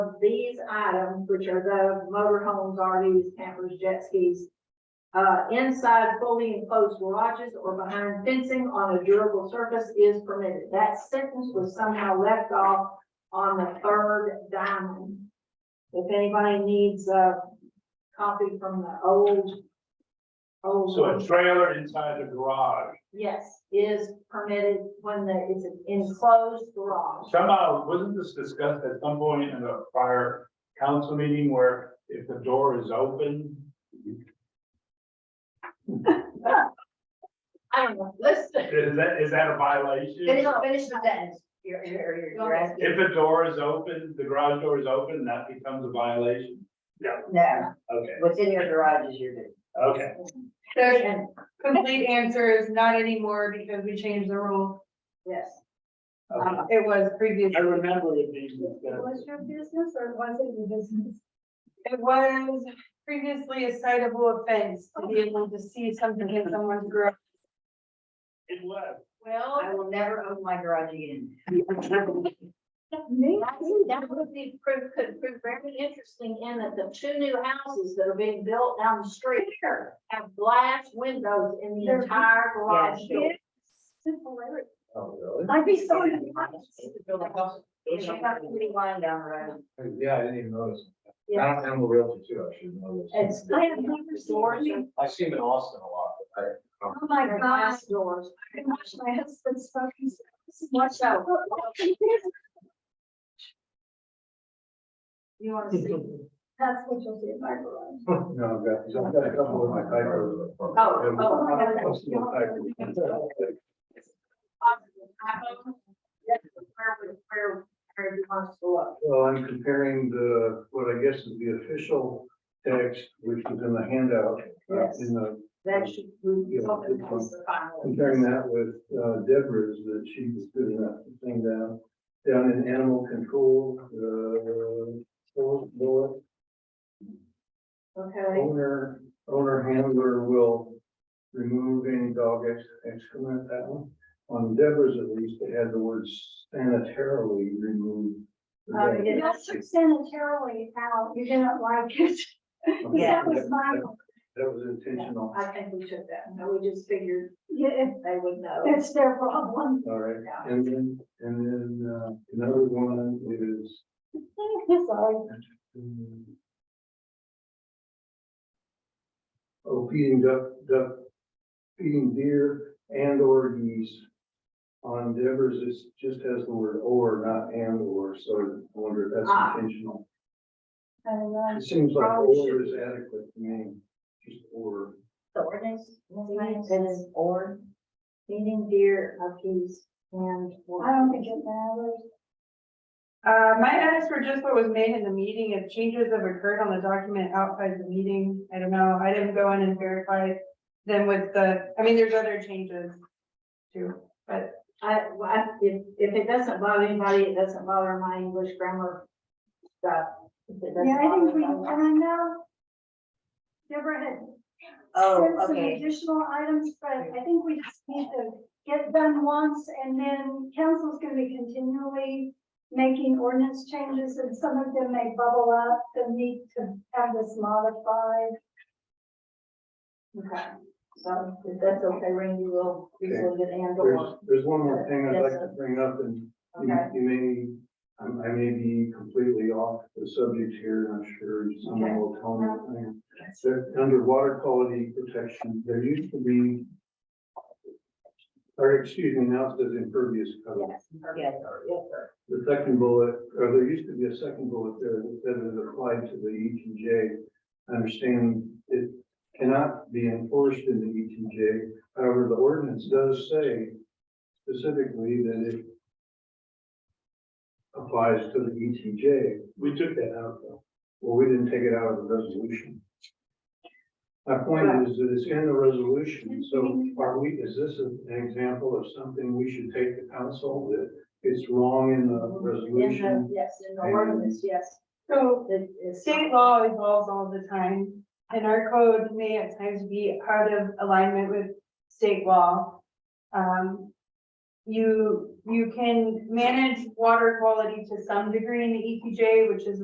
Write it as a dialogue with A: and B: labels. A: of these items, which are the motorhomes, RVs, campers, jet skis, uh, inside fully enclosed garages or behind fencing on a durable surface is permitted. That sentence was somehow left off on the third diamond. If anybody needs a copy from the old, old.
B: So a trailer inside the garage,
A: Yes, is permitted when the, it's an enclosed garage.
B: somehow, wasn't this discussed at some point in a prior council meeting where if the door is open?
A: I don't know, listen.
B: Is that, is that a violation?
C: Finish, finish the sentence, you're, you're, you're- you're asking,
B: If a door is open, the garage door is open, that becomes a violation?
C: no,
B: Okay,
C: what's in your garage is your business.
B: okay.
D: The
A: And,
D: complete answer is not anymore because we changed the rule.
A: yes.
B: okay.
D: It was previously.
B: I remember it being
E: Was
B: discussed.
E: your business or was it your business?
D: It was previously a citable offense to be able to see something in someone's garage.
B: It was.
C: I
D: Well,
C: will never open my garage again.
E: Me?
A: That that would be, prove- could prove very interesting in that the two new houses that are being built down the street here have glass windows in the entire garage door.
E: Similarity.
B: Oh, really?
E: I'd be so.
C: It's not really lying down the road.
F: Yeah, I didn't even notice.
A: Yeah.
F: I'm, I'm a realtor too, I should know this.
A: It's.
E: I have never
A: Doors
E: seen
F: I see him in Austin a lot, but I,
E: Oh, my
A: are
E: gosh,
A: glass doors.
E: I can watch my husband's fucking. Watch out.
A: You wanna see?
E: That's what you'll see in my garage.
F: no, I've got, I've got a couple of my typos. Oh,
A: Where, would- where, where you want us to look?
F: Well, I'm comparing the, what I guess is the official text, which is in the handout,
A: Yes.
F: uh, in the,
A: That should, we,
F: Yeah,
A: hoping
F: good
A: that was the final.
F: comparing that with uh, Deborah's, that she was good enough to sing down, down in animal control, uh, fourth bullet.
A: Okay,
F: Owner, owner handler will remove any dog ex- excrement, that one. On Deborah's at least, they had the word sanitarily removed.
A: Oh, yeah.
E: You guys took sanitarily out, you didn't like it.
F: Yeah.
E: That was my,
F: That was intentional,
A: I think we took that, no, we just figured
E: yeah,
A: they would know.
E: it's their problem.
F: all right.
A: Yeah.
F: And then, and then, uh, another one is,
E: Sorry.
F: um, oh, feeding duck, duck, feeding deer and or geese. On Deborah's, it just has the word or, not and or, so I wonder if
A: Ah.
F: that's intentional.
E: I don't know.
F: It seems like
E: Oh,
A: Probably
F: order
A: should-
F: is adequate to me, just order.
C: The ordinance, Ms. Lane,
A: It
C: says
A: is
C: or,
A: feeding deer, monkeys, and. or-
E: I don't think it matters.
D: uh, my edits were just what was made in the meeting. If changes have occurred on the document outside the meeting, I don't know. I didn't go in and verify them with the, I mean, there's other changes too.
A: I, well, I- if, if it doesn't bother anybody, it doesn't bother my English grammar stuff. If it doesn't
E: Yeah, I think we,
A: bother
E: and
A: them.
E: I know Deborah had
C: oh,
E: sent some
C: okay,
E: additional items, but I think we just need to get done once and then council's gonna be continually making ordinance changes and some of them may bubble up, the need to have this modified.
A: Okay, so if that's okay, Randy, we'll, we'll get
F: There's, uh,
A: handle.
F: there's one more thing I'd
A: Yes,
F: like
A: sir.
F: to bring up, and you,
A: Okay,
F: you may, I'm- I may be completely off the subject here, and I'm sure
A: Okay.
F: someone will tell me. I am. There- Under water quality protection, there used to be, or excuse me, now it says impervious cover.
A: yes,
C: yes,
F: The second bullet, or there used to be a second bullet there that said it applied to the E T J. I understand it cannot be enforced in the E T J. However, the ordinance does say specifically that it applies to the E T J.
B: We took that.
F: Get out though. Well, we didn't take it out of the resolution. My point is that it's in the resolution, so are we, is this an example of something we should take to council that it's wrong in the
A: in the,
F: resolution?
A: yes, in the ordinance, yes.
D: So
A: It is.
D: State law evolves all the time, and our code may at times be out of alignment with state law. Um, you, you can manage water quality to some degree in the EPJ, E which is